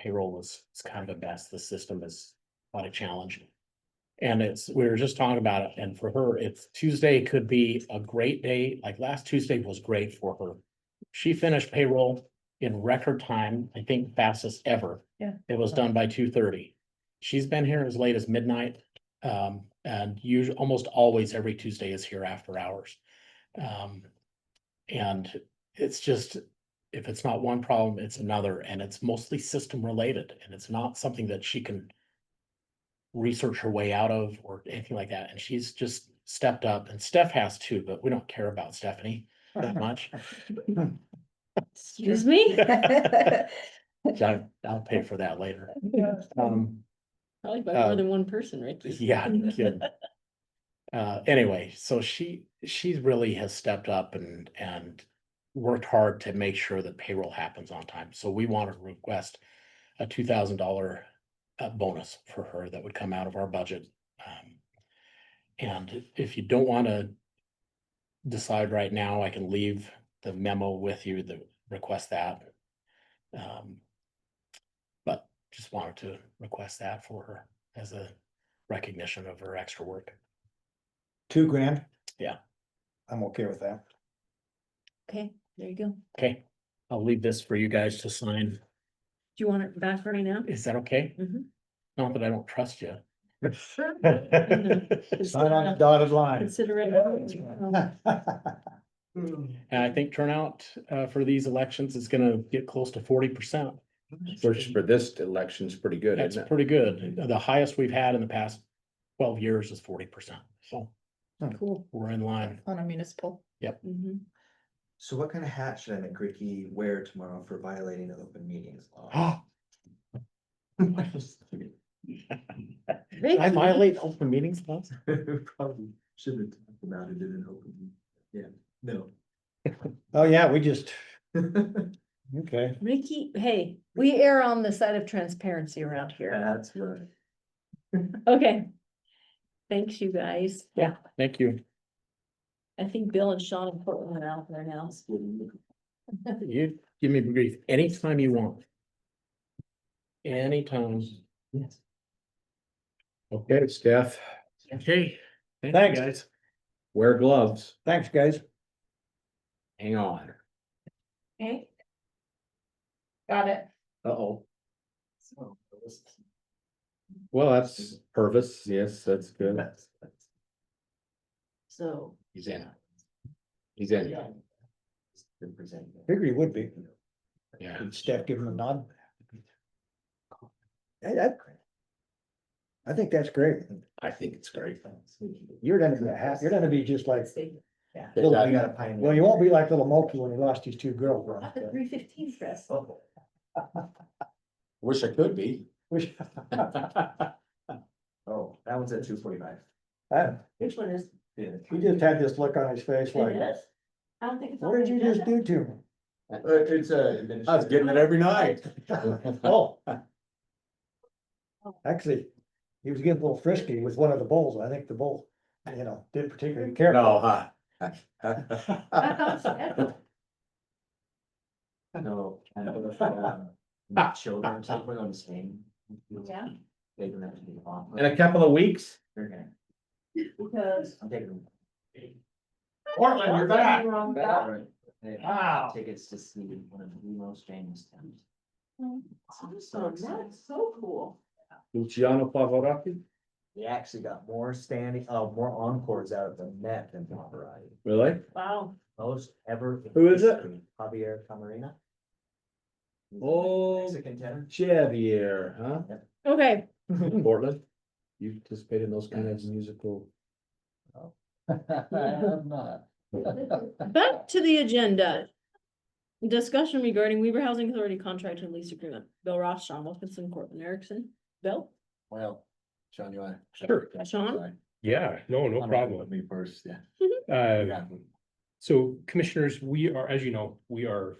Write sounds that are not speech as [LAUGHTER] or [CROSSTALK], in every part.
payroll was, is kind of a mess. The system is quite a challenge. And it's, we were just talking about it, and for her, it's Tuesday could be a great day, like last Tuesday was great for her. She finished payroll in record time, I think fastest ever. Yeah. It was done by two thirty. She's been here as late as midnight, um, and usually, almost always every Tuesday is here after hours. Um, and it's just, if it's not one problem, it's another, and it's mostly system related, and it's not something that she can research her way out of or anything like that, and she's just stepped up, and Steph has too, but we don't care about Stephanie that much. Excuse [LAUGHS] me? I'll, I'll pay for that later. Um, Probably by Um, more than one person, Ricky. yeah, no kidding. Uh, anyway, so she, she really has stepped up and, and worked hard to make sure that payroll happens on time. So we want to request a two thousand dollar uh, bonus for her that would come out of our budget. Um, And if you don't want to decide right now, I can leave the memo with you that request that. Um, But just wanted to request that for her as a recognition of her extra work. Two grand? Yeah. I'm okay with that. Okay, there you go. Do Okay, I'll leave this for you guys to sign. you want it back right [LAUGHS] now? Is that okay? Mhm. Not that I don't trust you. Sign on the dotted line. [LAUGHS] Consider Oh, it. And I think turnout uh for these elections is gonna get close to forty percent. Search for this election's pretty good, That's isn't it? pretty good. The highest we've had in the past twelve years is forty percent. So Cool. we're in line. On a municipal. Mhm. So what kind of hat should I make Ricky wear tomorrow for violating the open meetings [LAUGHS] law? I Ricky, violate open meetings laws? [LAUGHS] Probably shouldn't have talked about it in an open, meeting. yeah, no. Oh, yeah, we just, okay. Ricky, hey, We err on the side of transparency around here. That's right. okay. Thanks, you guys. Yeah. Thank you. I think Bill and Sean and Portland are out there now. You give me grief anytime you want. Anytime. Yes. Okay, Steph, Okay. you, Thanks. Guys. wear gloves, Thanks, guys. hang on. Okay. Got it. Uh-oh. So, that was- Well, that's Purvis, yes, that's good. that's- that's- So, He's in. He's in, Represent that. Figure he would be. yeah. Did Steph give him a nod? I, I- I think that's great. I think it's great. You're gonna be, a ha- you're gonna be just like, Yeah. Little I bit. got a pioneer. well, you won't be like little Mulkey when he lost his two girls. [LAUGHS] not the three fifteen press. Oh, Wish I could be. Wish- Oh, that one's at two forty-five. I- Which one is? Yeah. He just had this look on his face like, It is? I don't think it's. on what did the you just agenda. do to me? It's a. I was getting it every [LAUGHS] night. Oh. Actually, he was getting a little frisky with one of the bowls. I think the bowl, you know, didn't particularly care. No, [LAUGHS] I thought so. huh? No. kind of, um, my Children, something on the same. Yeah. They don't have to be off. In a couple of weeks, They're gonna, Because. I'm taking them. Portland, you're back. Wrong All guy. right. They- Wow. Tickets to see one of the most famous towns. Awesome, that's Hmm. so cool. Luciano Pavarotti, We actually got more standing, uh, more encores out of the Met than Pavarotti. [LAUGHS] really? Wow. Most ever. in Who is it? history. Javier Camarena. He's a Oh. Mexican [LAUGHS] tenor. Javier, [LAUGHS] huh? Okay, Portland, you participate in those kind of musical. back to the agenda. Discussion regarding Weaver Housing Authority contract and lease agreement. Bill Ross, Sean Wilkinson, Corbin Erickson. Bill, Well, Sean, you wanna? Sure. Sean? Sorry. Yeah, no, no I'm problem. Me first, yeah. Uh, Yeah. so commissioners, we are, as you know, we are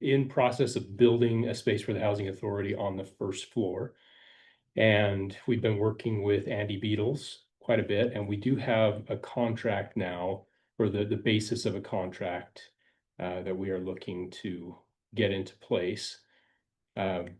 in process of building a space for the housing authority on the first floor. And we've been working with Andy Beatles quite a bit, and we do have a contract now or the, the basis of a contract uh, that we are looking to get into place. Um,